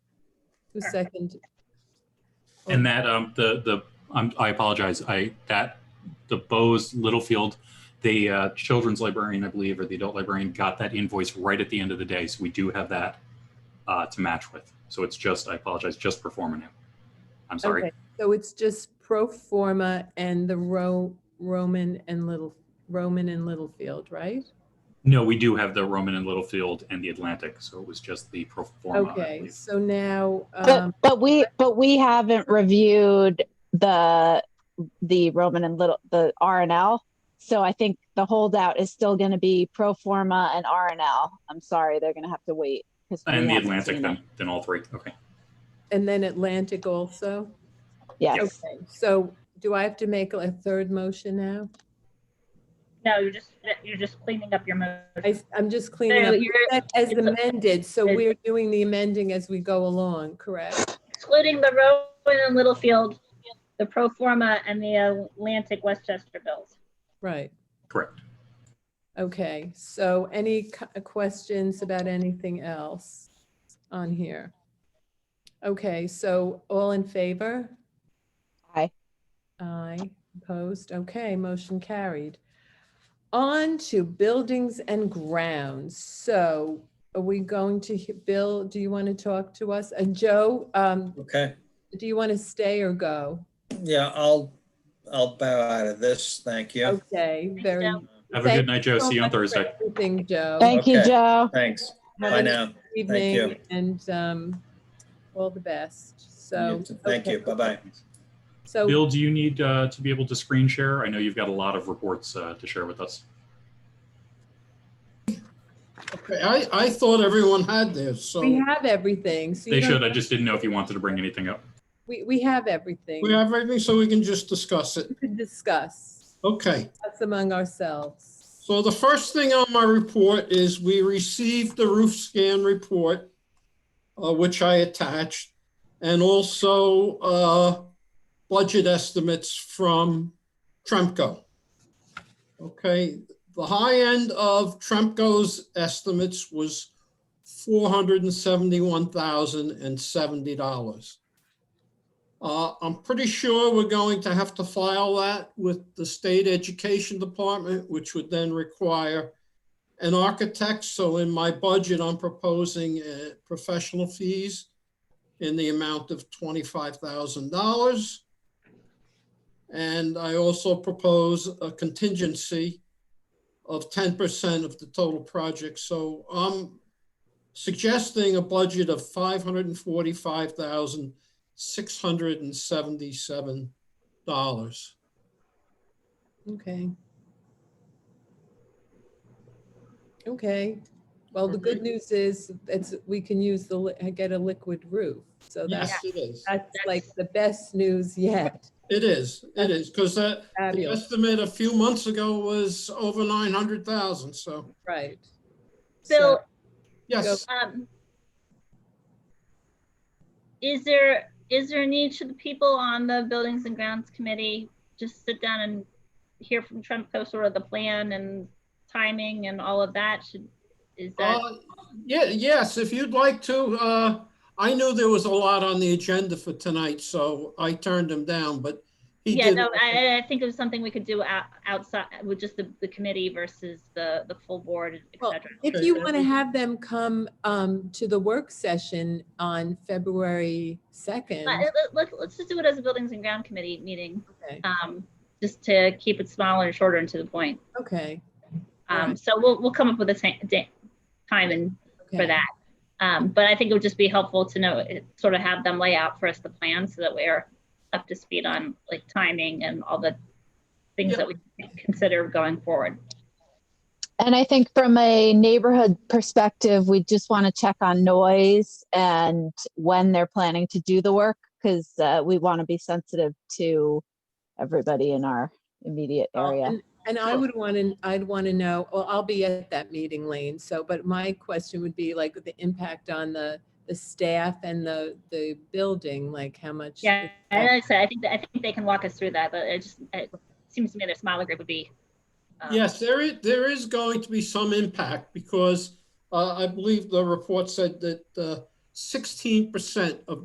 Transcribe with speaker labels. Speaker 1: Who second?
Speaker 2: And that, um, the, the, um, I apologize, I, that, the Bose Littlefield, the, uh, children's librarian, I believe, or the adult librarian, got that invoice right at the end of the day, so we do have that, uh, to match with. So it's just, I apologize, just performing it. I'm sorry.
Speaker 1: Okay, So it's just pro forma and the Ro, Roman and Little, Roman and Littlefield, right?
Speaker 2: No, we do have the Roman and Littlefield and the Atlantic, so it was just the pro forma. I
Speaker 1: Okay,
Speaker 2: believe.
Speaker 1: so now,
Speaker 3: But,
Speaker 1: um,
Speaker 3: but we, but we haven't reviewed the, the Roman and Little, the R and L. So I think the holdout is still going to be pro forma and R and L. I'm sorry, they're going to have to wait. 'cause we
Speaker 2: And the
Speaker 3: haven't
Speaker 2: Atlantic,
Speaker 3: seen it.
Speaker 2: then, then all three, okay.
Speaker 1: and then Atlantic also?
Speaker 3: Yes.
Speaker 1: Okay, so do I have to make a third motion now?
Speaker 4: No, you're just, you're just cleaning up your motion.
Speaker 1: I, I'm just
Speaker 4: So
Speaker 1: cleaning up
Speaker 4: You're
Speaker 1: That as amended, so we're doing the amending as we go along, correct?
Speaker 4: excluding the Rowan and Littlefield, the pro forma and the Atlantic Westchester bills.
Speaker 1: Right,
Speaker 2: Correct.
Speaker 1: okay, so any cu- uh, questions about anything else on here? Okay, so all in favor?
Speaker 3: Aye.
Speaker 1: Aye, opposed, okay, motion carried. On to buildings and grounds, so are we going to, he- Bill, do you want to talk to us? And Joe, um,
Speaker 5: Okay,
Speaker 1: do you want to stay or go?
Speaker 5: yeah, I'll, I'll bow out of this, thank you.
Speaker 1: Okay, very
Speaker 4: Joe.
Speaker 2: Have a
Speaker 1: Thank
Speaker 2: good night, Joe.
Speaker 1: so
Speaker 2: See you on
Speaker 1: much for
Speaker 2: Thursday.
Speaker 1: Everything, Joe.
Speaker 3: Thank you,
Speaker 5: Okay.
Speaker 3: Joe.
Speaker 5: Thanks,
Speaker 1: Have
Speaker 5: bye
Speaker 1: a
Speaker 5: now.
Speaker 1: good Evening
Speaker 5: you.
Speaker 1: and um, all the best. So.
Speaker 5: Thank you,
Speaker 1: okay.
Speaker 5: bye-bye.
Speaker 1: So,
Speaker 2: Bill, do you need uh, to be able to screen share? I know you've got a lot of reports uh, to share with us.
Speaker 6: Okay, I, I thought everyone had theirs, so
Speaker 1: we have everything. so you
Speaker 2: They
Speaker 1: don't-
Speaker 2: should. I just didn't know if you wanted to bring anything up.
Speaker 1: We, we have everything.
Speaker 6: we have everything, so we can just discuss it.
Speaker 1: We could discuss
Speaker 6: Okay,
Speaker 1: us among ourselves.
Speaker 6: so the first thing on my report is we received the roof scan report, uh, which I attached, and also, uh, budget estimates from Tremco. Okay, the high end of Tremco's estimates was four hundred and seventy-one thousand and seventy dollars. Uh, I'm pretty sure we're going to have to file that with the state education department, which would then require an architect. So in my budget, I'm proposing uh, professional fees in the amount of twenty-five thousand dollars. And I also propose a contingency of ten percent of the total project. So I'm suggesting a budget of five hundred and forty-five thousand six hundred and seventy-seven dollars.
Speaker 1: Okay. Okay. Well, the good news is it's, we can use the, li- get a liquid roof. So that's,
Speaker 6: Yes, it is.
Speaker 1: that's like the best news yet.
Speaker 6: It is, it is, because the
Speaker 1: Fabulous,
Speaker 6: estimate a few months ago was over nine hundred thousand, so,
Speaker 1: right.
Speaker 4: Bill,
Speaker 6: yes.
Speaker 4: um, is there, is there a need should the people on the Buildings and Grounds Committee just sit down and hear from Tremco sort of the plan and timing and all of that? Should, is that,
Speaker 6: Uh, Yeah, yes, if you'd like to, uh, I knew there was a lot on the agenda for tonight, so I turned him down, but he
Speaker 4: yeah,
Speaker 6: did.
Speaker 4: no, I, I think it was something we could do out, outside with just the, the committee versus the, the full board, et
Speaker 1: Well,
Speaker 4: cetera.
Speaker 1: If
Speaker 6: Okay,
Speaker 1: you
Speaker 6: then
Speaker 1: want to
Speaker 6: we-
Speaker 1: have them come um, to the work session on February 2nd,
Speaker 4: Let- let- let- Let's just do it as a Buildings and Ground Committee meeting,
Speaker 1: okay,
Speaker 4: um, just to keep it smaller and shorter and to the point.
Speaker 1: okay.
Speaker 4: Um, so we'll, we'll come up with a ti- da- time and for
Speaker 1: okay.
Speaker 4: that. Um, but I think it would just be helpful to know, it- sort of have them lay out for us the plan so that we're up to speed on like timing and all the things
Speaker 6: Yeah.
Speaker 4: that we consider going forward.
Speaker 3: And I think from a neighborhood perspective, we just want to check on noise and when they're planning to do the work because uh, we want to be sensitive to everybody in our immediate
Speaker 2: Oh,
Speaker 3: area.
Speaker 1: And- And I would want to, I'd want to know, well, I'll be at that meeting, Lane, so, but my question would be like the impact on the, the staff and the, the building, like how much?
Speaker 4: Yeah, and like I said, I think, that- I think they can walk us through that, but it just, it seems to me the smaller group would be. um,
Speaker 6: Yes, there is, there is going to be some impact because uh, I believe the report said that uh, sixteen percent of